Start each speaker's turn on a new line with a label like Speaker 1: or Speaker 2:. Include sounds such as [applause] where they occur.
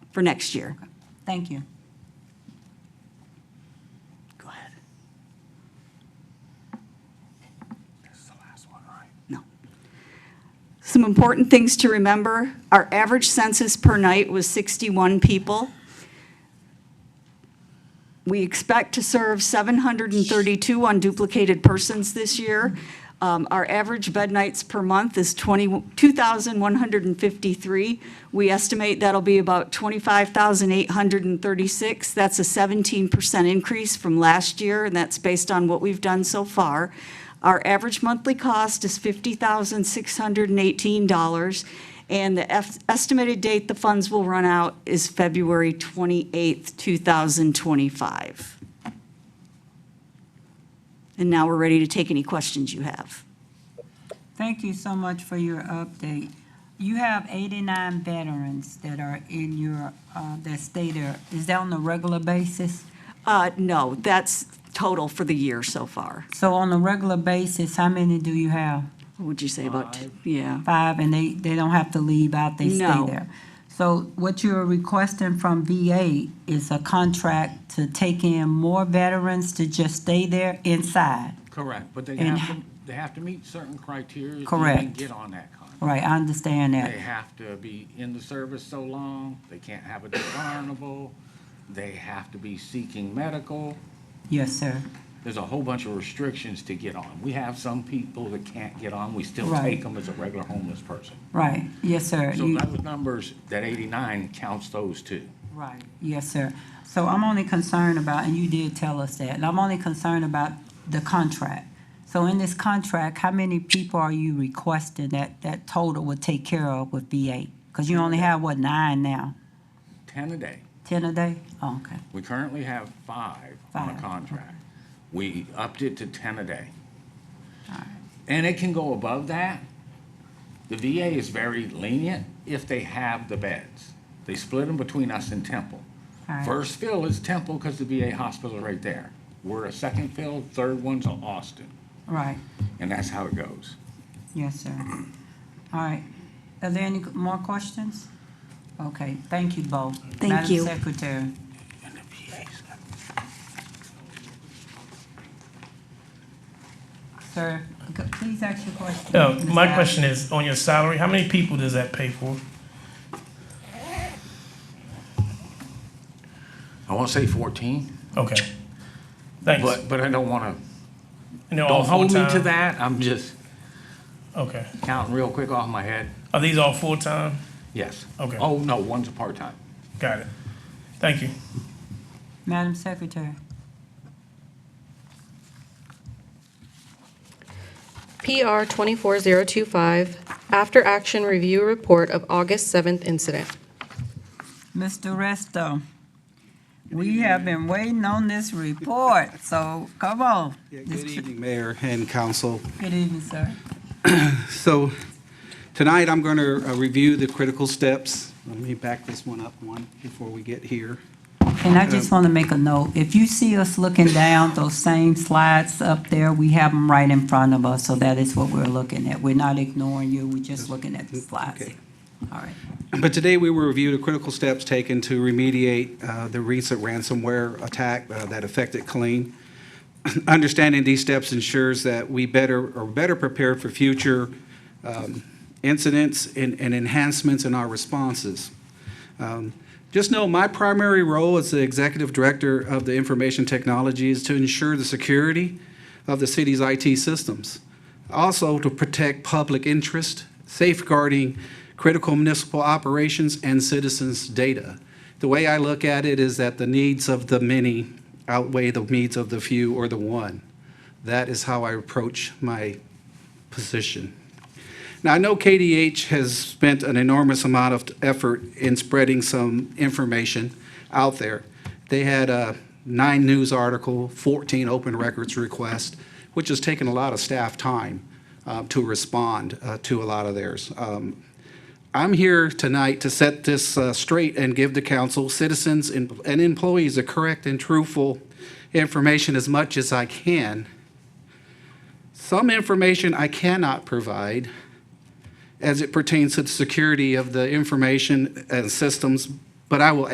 Speaker 1: for next year.
Speaker 2: Thank you.
Speaker 1: Go ahead.
Speaker 3: This is the last one, right?
Speaker 1: No. Some important things to remember, our average census per night was 61 people. We expect to serve 732 unduplicated persons this year. Um, Our average bed nights per month is 20 2,153. We estimate that'll be about 25,836. That's a 17% increase from last year, and that's based on what we've done so far. Our average monthly cost is $50,618, and the ef- estimated date the funds will run out is February 28th, 2025. And now we're ready to take any questions you have.
Speaker 2: Thank you so much for your update. You have 89 veterans that are in your, uh, that stay there. Is that on a regular basis?
Speaker 1: Uh, No, that's total for the year so far.
Speaker 2: So on a regular basis, how many do you have?
Speaker 1: What would you say about, yeah,
Speaker 2: Five, and they, they don't have to leave out, they stay
Speaker 1: No.
Speaker 2: there? So what you're requesting from VA is a contract to take in more veterans to just stay there inside?
Speaker 3: Correct, but they
Speaker 2: And-
Speaker 3: have to, they have to meet certain criteria. They
Speaker 2: Correct.
Speaker 3: get on that contract.
Speaker 2: Right, I understand
Speaker 3: They
Speaker 2: that.
Speaker 3: have to be in the service so long, they can't have a discernible, they have to be seeking medical.
Speaker 2: Yes, sir.
Speaker 3: There's a whole bunch of restrictions to get on. We have some people that can't get on, we still
Speaker 2: Right.
Speaker 3: take them as a regular homeless person.
Speaker 2: Right, yes, sir.
Speaker 3: So
Speaker 2: You-
Speaker 3: those numbers, that 89 counts those two.
Speaker 2: Right, yes, sir. So I'm only concerned about, and you did tell us that, and I'm only concerned about the contract. So in this contract, how many people are you requesting that, that total would take care of with VA? Because you only have, what, nine now?
Speaker 3: 10 a day.
Speaker 2: 10 a day? Oh, okay,
Speaker 3: We currently have five on a
Speaker 2: Five.
Speaker 3: contract. We upped it to 10 a day. And it can go above that. The VA is very lenient if they have the beds. They split them between us and Temple.
Speaker 2: All right.
Speaker 3: First fill is Temple because the VA hospital is right there. We're a second fill, third one's Austin,
Speaker 2: right,
Speaker 3: and that's how it goes.
Speaker 2: yes, sir. All right, are there any more questions? Okay, thank you both.
Speaker 1: Thank you.
Speaker 2: Madam Secretary.
Speaker 3: And the VA's got
Speaker 2: Sir, go- please ask your question.
Speaker 4: No,
Speaker 2: Ms.
Speaker 4: my
Speaker 2: Allen.
Speaker 4: question is, on your salary, how many people does that pay for?
Speaker 3: I want to say 14,
Speaker 4: Okay. Thanks.
Speaker 3: but, but I don't want
Speaker 4: And they're
Speaker 3: to,
Speaker 4: all
Speaker 3: don't hold me to
Speaker 4: full-time?
Speaker 3: that. I'm just
Speaker 4: Okay.
Speaker 3: counting real quick off my head.
Speaker 4: Are these all full-time?
Speaker 3: Yes.
Speaker 4: Okay.
Speaker 3: Oh, no, one's a part-time.
Speaker 4: Got it. Thank you.
Speaker 2: Madam Secretary.
Speaker 5: PR 24025, After Action Review Report of August 7th Incident.
Speaker 2: Mr. Resto, we have been waiting on this report, so come on.
Speaker 6: Yeah,
Speaker 2: This-
Speaker 6: Good evening, Mayor and Council.
Speaker 2: Good evening, sir.
Speaker 6: So tonight, I'm going to review the critical steps. Let me back this one up one before we get here.
Speaker 2: And I just want to make a note, if you see us looking down those same slides up there, we have them right in front of us, so that is what we're looking at. We're not ignoring you, we're just looking at the slides.
Speaker 6: Okay.
Speaker 2: All right.
Speaker 6: But today, we will review the critical steps taken to remediate uh, the recent ransomware attack uh, that affected Killeen. [clears throat] Understanding these steps ensures that we better, are better prepared for future um, incidents and and enhancements in our responses. Um, Just know, my primary role as the Executive Director of the Information Technology is to ensure the security of the city's IT systems, also to protect public interest, safeguarding critical municipal operations and citizens' data. The way I look at it is that the needs of the many outweigh the needs of the few or the one. That is how I approach my position. Now, I know KDH has spent an enormous amount of effort in spreading some information out there. They had a nine news article, 14 open records requests, which has taken a lot of staff time uh, to respond uh, to a lot of theirs. Um, I'm here tonight to set this uh, straight and give the council, citizens, and and employees the correct and truthful information as much as I can. Some information I cannot provide as it pertains to the security of the information and systems But I will